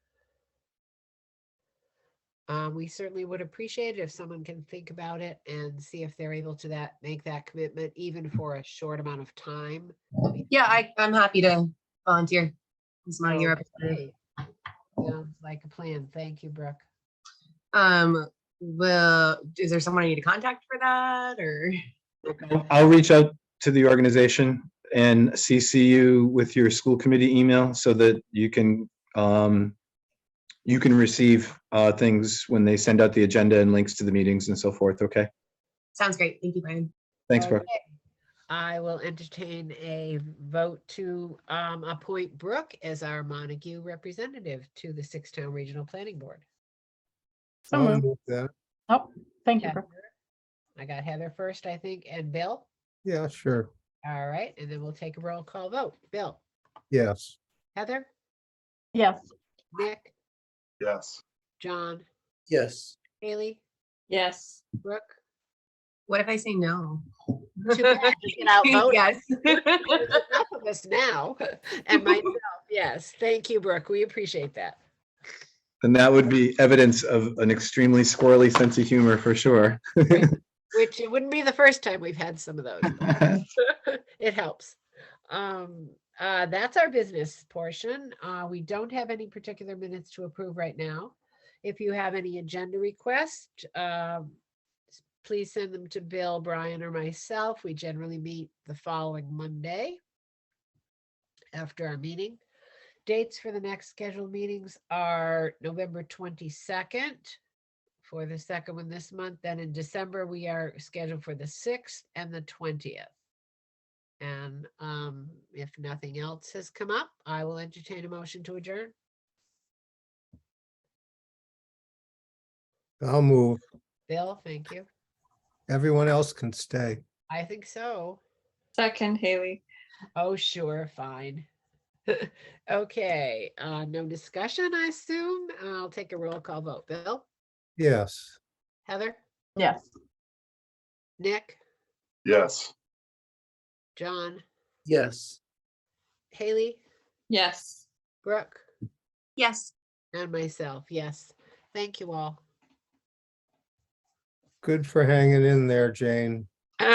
Um, we certainly would appreciate it if someone can think about it and see if they're able to that, make that commitment even for a short amount of time. Yeah, I, I'm happy to volunteer. It's my year. Oh, Okay. Sounds like a plan. Thank you, Brooke. Um, well, is there someone I need to contact for that or? I'll- I'll reach out to the organization and CC you with your school committee email so that you can, um, you can receive, uh, things when they send out the agenda and links to the meetings and so forth, okay? Sounds great. Thank you, Brian. Thanks, Brooke. Okay. I will entertain a vote to um, appoint Brooke as our Montague representative to the Sixtown Regional Planning Board. So I'll moved. move that. Thank you, Brooke. I got Heather first, I think, and Bill. Yeah, sure. All right, and then we'll take a roll call vote. Bill, Yes. Heather, Yes, Nick, Yes. John, Yes. Haley, Yes. Brooke. What if I say no? Too bad you get outvoted. Yes. Enough of us now, and myself, yes. Thank you, Brooke. We appreciate that. And that would be evidence of an extremely squirrely sense of humor for sure. Which it wouldn't be the first time we've had some of those. it helps. Um, uh, that's our business portion. Uh, we don't have any particular minutes to approve right now. If you have any agenda requests, um, s- please send them to Bill, Brian, or myself. We generally meet the following Monday after our meeting. Dates for the next scheduled meetings are November twenty-second for the second one this month. Then in December, we are scheduled for the sixth and the twentieth. And um, if nothing else has come up, I will entertain a motion to adjourn. I'll move. Bill, thank you. Everyone else can stay. I think so. Second, Haley. Oh, sure, fine. Okay, uh, no discussion, I assume. I'll take a roll call vote. Bill, Yes. Heather, yes. Nick, Yes. John, Yes. Haley, Yes. Brooke, Yes. and myself, yes. Thank you all. Good for hanging in there, Jane.